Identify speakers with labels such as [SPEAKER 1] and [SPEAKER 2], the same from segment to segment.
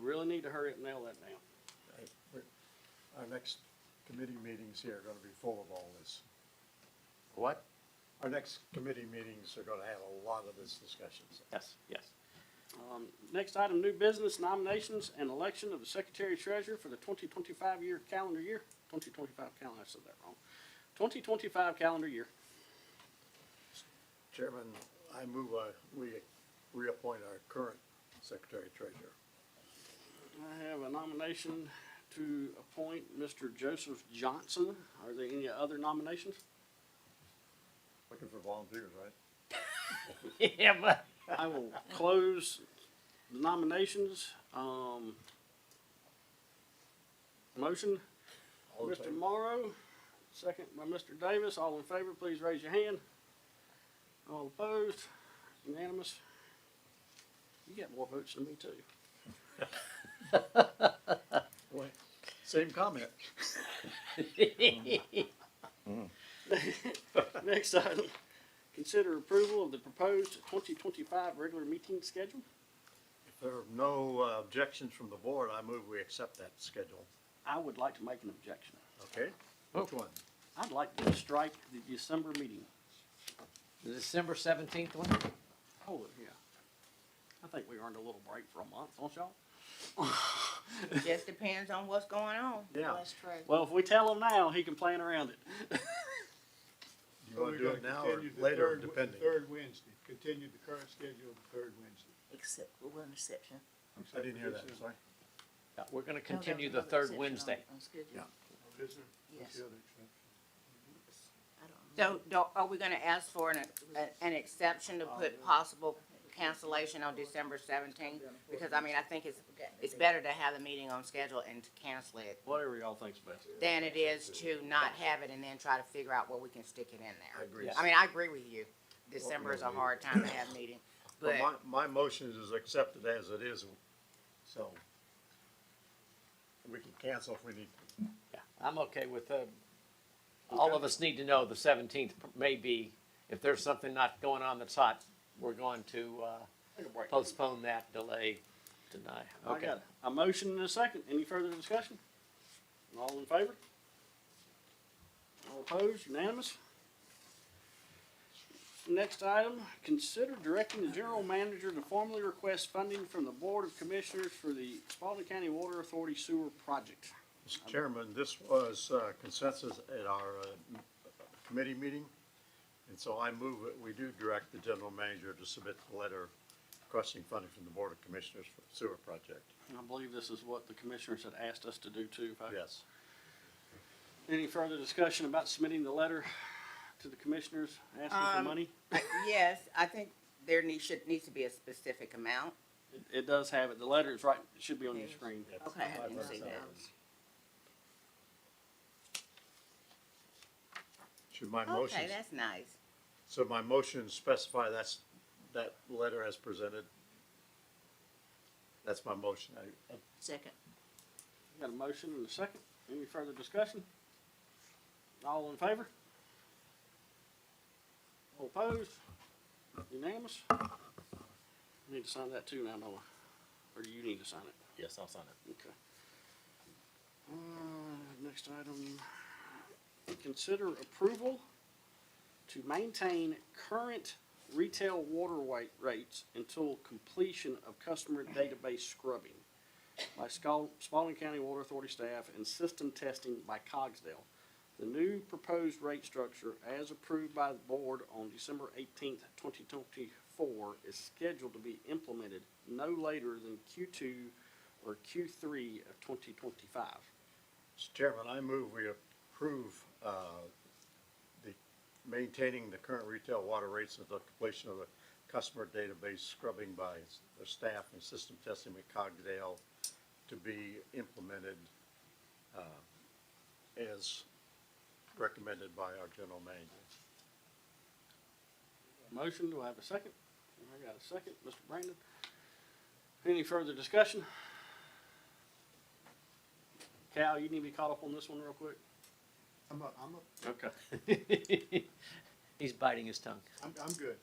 [SPEAKER 1] really need to hurry up and nail that down.
[SPEAKER 2] Right, we're- Our next committee meetings here are gonna be full of all this.
[SPEAKER 3] What?
[SPEAKER 2] Our next committee meetings are gonna have a lot of this discussion.
[SPEAKER 3] Yes, yes.
[SPEAKER 1] Um, next item, new business nominations and election of the secretary treasurer for the twenty twenty-five year calendar year, twenty twenty-five calendar, I said that wrong. Twenty twenty-five calendar year.
[SPEAKER 2] Chairman, I move, uh, we reappoint our current secretary treasurer.
[SPEAKER 1] I have a nomination to appoint Mr. Joseph Johnson. Are there any other nominations?
[SPEAKER 2] Looking for volunteers, right?
[SPEAKER 3] Yeah, but.
[SPEAKER 1] I will close the nominations. Um, motion,
[SPEAKER 2] All in
[SPEAKER 1] Mr.
[SPEAKER 2] favor?
[SPEAKER 1] Morrow, second by Mr. Davis. All in favor, please raise your hand. All opposed, unanimous. You got more votes than me too.
[SPEAKER 2] Wait, Same comment.
[SPEAKER 1] Next item, consider approval of the proposed twenty twenty-five regular meeting schedule.
[SPEAKER 2] If there are no uh, objections from the board, I move we accept that schedule.
[SPEAKER 1] I would like to make an objection.
[SPEAKER 2] Okay?
[SPEAKER 4] Oh.
[SPEAKER 2] Which one?
[SPEAKER 1] I'd like to strike the December meeting.
[SPEAKER 3] The December seventeenth one?
[SPEAKER 1] Oh, yeah. I think we earned a little break for a month, don't y'all?
[SPEAKER 5] Just depends on what's going on.
[SPEAKER 2] Yeah.
[SPEAKER 6] That's true.
[SPEAKER 1] Well, if we tell him now, he can plan around it.
[SPEAKER 2] Do you wanna do it now or
[SPEAKER 4] Continue the
[SPEAKER 2] later,
[SPEAKER 4] third-
[SPEAKER 2] depending?
[SPEAKER 4] Third Wednesday, continue the current schedule the third Wednesday.
[SPEAKER 6] Except, with one exception.
[SPEAKER 2] I didn't hear that, sorry.
[SPEAKER 3] We're gonna
[SPEAKER 6] No, there Oh, was
[SPEAKER 3] continue the
[SPEAKER 6] another
[SPEAKER 3] third
[SPEAKER 6] exception on-
[SPEAKER 3] Wednesday.
[SPEAKER 6] on schedule.
[SPEAKER 2] Yeah.
[SPEAKER 4] Is there? What's
[SPEAKER 6] Yes.
[SPEAKER 4] the other exception?
[SPEAKER 6] I don't know.
[SPEAKER 5] So, do, are we gonna ask for an, an exception to put possible cancellation on December seventeenth? Because, I mean, I think it's, it's better to have the meeting on schedule and to cancel it
[SPEAKER 1] Whatever y'all think's best.
[SPEAKER 5] than it is to not have it and then try to figure out what we can stick it in there.
[SPEAKER 2] agree.
[SPEAKER 5] I mean, I agree with you. December is a hard time to have meeting, but,
[SPEAKER 2] But my, my motion is accepted as it is, so. We can cancel if we need.
[SPEAKER 3] I'm okay with, uh, all of us need to know the seventeenth may be, if there's something not going on that's hot, we're going to, uh,
[SPEAKER 1] Take a break.
[SPEAKER 3] postpone that, delay, deny.
[SPEAKER 1] I
[SPEAKER 3] Okay.
[SPEAKER 1] got A motion and a second. Any further discussion? All in favor? All opposed? Unanimous? Next item, consider directing the general manager to formally request funding from the Board of Commissioners for the Spalding County Water Authority Sewer Project.
[SPEAKER 2] Mr. Chairman, this was uh, consensus at our uh, m- committee meeting, and so I move that we do direct the general manager to submit the letter requesting funding from the Board of Commissioners for the sewer project.
[SPEAKER 1] And I believe this is what the commissioners had asked us to do too. if I-
[SPEAKER 2] Yes.
[SPEAKER 1] Any further discussion about submitting the letter to the commissioners asking for
[SPEAKER 5] Um,
[SPEAKER 1] money?
[SPEAKER 5] I- yes, I think there needs, should, needs to be a specific amount.
[SPEAKER 1] It- It does have it. The letter is right, it should be on your
[SPEAKER 6] Yes.
[SPEAKER 1] screen.
[SPEAKER 5] Okay, I didn't see that.
[SPEAKER 2] Should my motion,
[SPEAKER 5] Okay, that's nice.
[SPEAKER 2] so my motion specify that's, that letter as presented? That's my motion. I-
[SPEAKER 6] Second.
[SPEAKER 1] Got a motion and a second. Any further discussion? All in favor? All opposed? Unanimous? I Need to sign that too now, Noah. Or do you need to sign it?
[SPEAKER 3] Yes, I'll sign it.
[SPEAKER 1] Okay. Uh, next item. Consider approval to maintain current retail water weight rates until completion of customer database scrubbing by Scal- Spalding County Water Authority staff and system testing by Cogsdale. The new proposed rate structure, as approved by the board on December eighteenth, twenty twenty-four, is scheduled to be implemented no later than Q two or Q three of twenty twenty-five.
[SPEAKER 2] Mr. Chairman, I move we approve, uh, the, maintaining the current retail water rates until completion of the customer database scrubbing by s- the staff and system testing at Cogdale to be implemented, uh, as recommended by our general manager.
[SPEAKER 1] Motion, do I have a second? I got a second, Mr. Brandon. Any further discussion? Cal, you need to be caught up on this one real quick.
[SPEAKER 4] I'm, a- I'm, a-
[SPEAKER 1] Okay.
[SPEAKER 3] He's biting his tongue.
[SPEAKER 4] I'm, I'm good.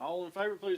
[SPEAKER 1] All in favor, please